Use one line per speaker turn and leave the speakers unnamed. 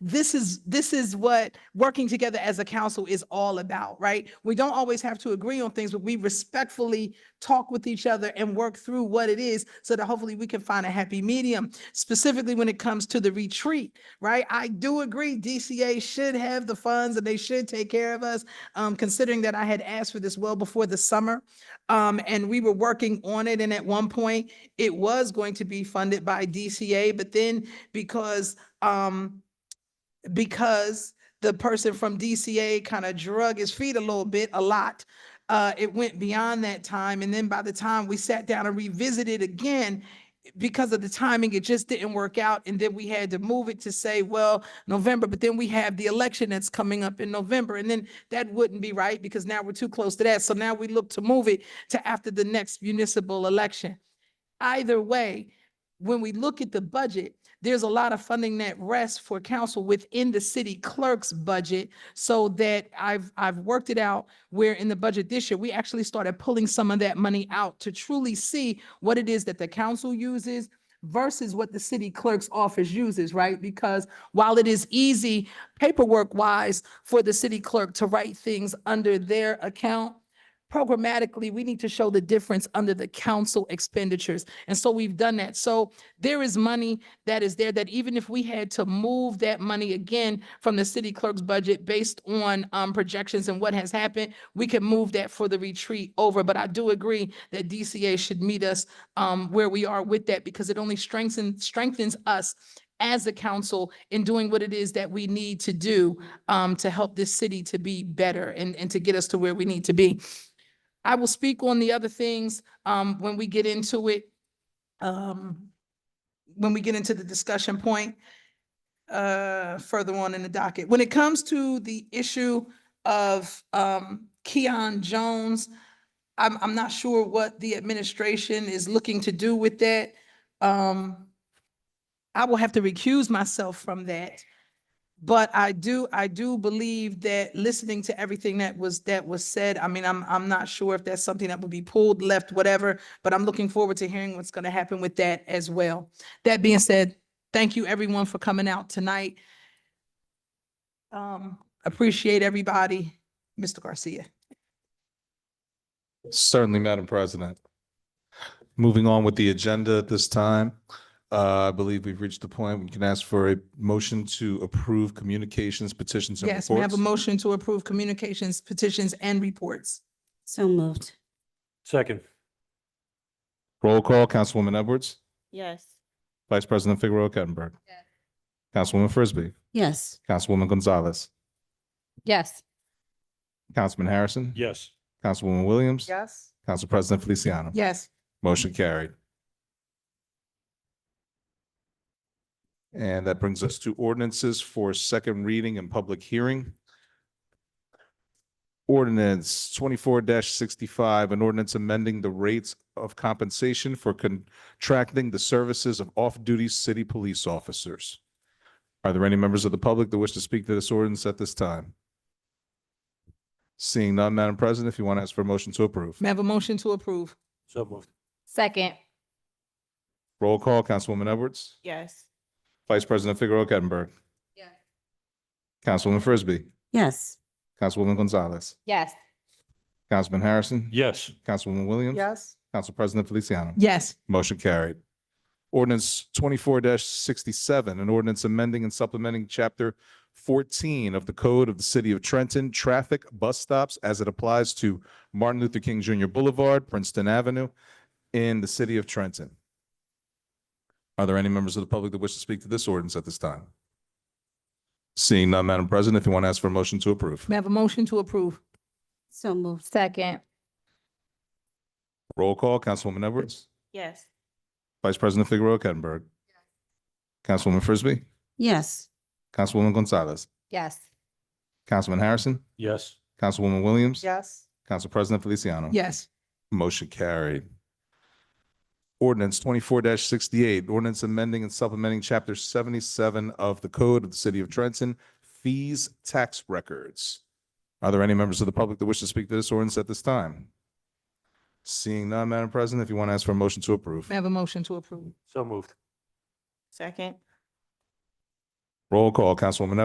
this is, this is what working together as a council is all about, right? We don't always have to agree on things, but we respectfully talk with each other and work through what it is so that hopefully we can find a happy medium, specifically when it comes to the retreat, right? I do agree DCA should have the funds and they should take care of us, um, considering that I had asked for this well before the summer. Um, and we were working on it, and at one point, it was going to be funded by DCA, but then because, um, because the person from DCA kind of drug his feet a little bit, a lot, uh, it went beyond that time, and then by the time we sat down and revisited again, because of the timing, it just didn't work out, and then we had to move it to say, well, November, but then we have the election that's coming up in November, and then that wouldn't be right, because now we're too close to that, so now we look to move it to after the next municipal election. Either way, when we look at the budget, there's a lot of funding that rests for council within the city clerk's budget. So that I've, I've worked it out where in the budget this year, we actually started pulling some of that money out to truly see what it is that the council uses versus what the city clerk's office uses, right? Because while it is easy paperwork wise for the city clerk to write things under their account, programmatically, we need to show the difference under the council expenditures. And so we've done that. So there is money that is there that even if we had to move that money again from the city clerk's budget based on um projections and what has happened, we can move that for the retreat over. But I do agree that DCA should meet us um where we are with that because it only strengthens strengthens us as a council in doing what it is that we need to do um to help this city to be better and and to get us to where we need to be. I will speak on the other things um when we get into it. Um, when we get into the discussion point uh further on in the docket. When it comes to the issue of um Keon Jones, I'm I'm not sure what the administration is looking to do with that. Um, I will have to recuse myself from that. But I do, I do believe that listening to everything that was, that was said, I mean, I'm, I'm not sure if that's something that would be pulled, left, whatever, but I'm looking forward to hearing what's gonna happen with that as well. That being said, thank you everyone for coming out tonight. Um, appreciate everybody. Mr. Garcia.
Certainly, Madam President. Moving on with the agenda at this time, uh, I believe we've reached the point we can ask for a motion to approve communications, petitions, and
Yes, we have
reports.
a motion to approve communications, petitions, and reports.
So moved.
Second,
Roll call, Councilwoman Edwards,
Yes.
Vice President Figueroa Kettner. Councilwoman Frisbee,
Yes.
Councilwoman Gonzalez,
Yes.
Councilman Harrison.
yes.
Councilwoman Williams.
Yes.
Council President Feliciano.
Yes.
Motion carried. And that brings us to ordinances for second reading and public hearing. Ordinance twenty-four sixty-five, an ordinance amending the rates of compensation for contracting the services of off-duty city police officers. Are there any members of the public that wish to speak to this ordinance at this time? Seeing none, Madam President, if you want to ask for a motion to approve.
May I have a motion to approve?
So moved.
Second,
Roll call, Councilwoman Edwards.
Yes.
Vice President Figueroa Kettner.
Yes.
Councilwoman Frisbee,
Yes.
Councilwoman Gonzalez,
yes.
Councilman Harrison.
Yes,
Councilwoman Williams.
Yes.
Council President Feliciano.
Yes.
Motion carried. Ordinance twenty-four sixty-seven, an ordinance amending and supplementing chapter fourteen of the Code of the City of Trenton, traffic bus stops as it applies to Martin Luther King Junior Boulevard, Princeton Avenue in the city of Trenton. Are there any members of the public that wish to speak to this ordinance at this time? Seeing none, Madam President, if you want to ask for a motion to approve.
May I have a motion to approve?
So moved.
Second,
Roll call, Councilwoman Edwards,
Yes.
Vice President Figueroa Kettner. Councilwoman Frisbee,
Yes.
Councilwoman Gonzalez,
yes.
Councilman Harrison,
yes.
Councilwoman Williams.
Yes.
Council President Feliciano.
Yes.
Motion carried. Ordinance twenty-four sixty-eight, ordinance amending and supplementing chapter seventy-seven of the Code of the City of Trenton, fees tax records. Are there any members of the public that wish to speak to this ordinance at this time? Seeing none, Madam President, if you want to ask for a motion to approve.
May I have a motion to approve?
So moved.
Second.
Roll call, Councilwoman